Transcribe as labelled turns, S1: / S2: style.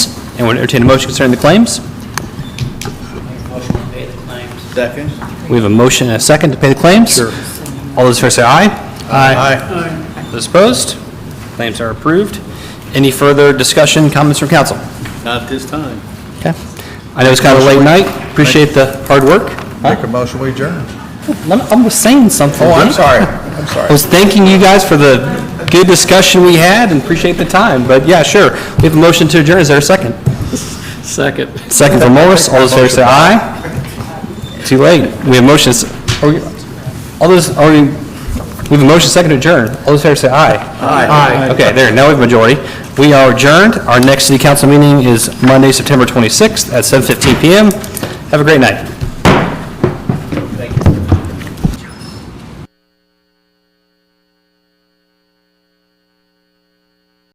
S1: And we'll entertain a motion concerning the claims.
S2: Motion to pay the claims.
S3: Second?
S1: We have a motion and a second to pay the claims. Sure. All those in favor say aye.
S3: Aye.
S1: Those opposed? Claims are approved. Any further discussion, comments from council?
S3: Not this time.
S1: Okay. I know it's kind of a late night. Appreciate the hard work.
S4: Make a motion, we adjourn.
S1: I'm- I was saying something.
S4: Oh, I'm
S1: Dan.
S4: sorry, I'm sorry.
S1: I was thanking you guys for the good discussion we had and appreciate the time. But yeah, sure. We have a motion to adjourn. Is there a second?
S2: Second.
S1: Second from Morris. All those in favor say aye. Too late. We have motions. are we- All those, are we, we have a motion second to adjourn. All those in favor say aye. Aye. Okay, there, now we have majority. We are adjourned. Our next city council meeting is Monday, September 26th at 7:15 PM. Have a great night.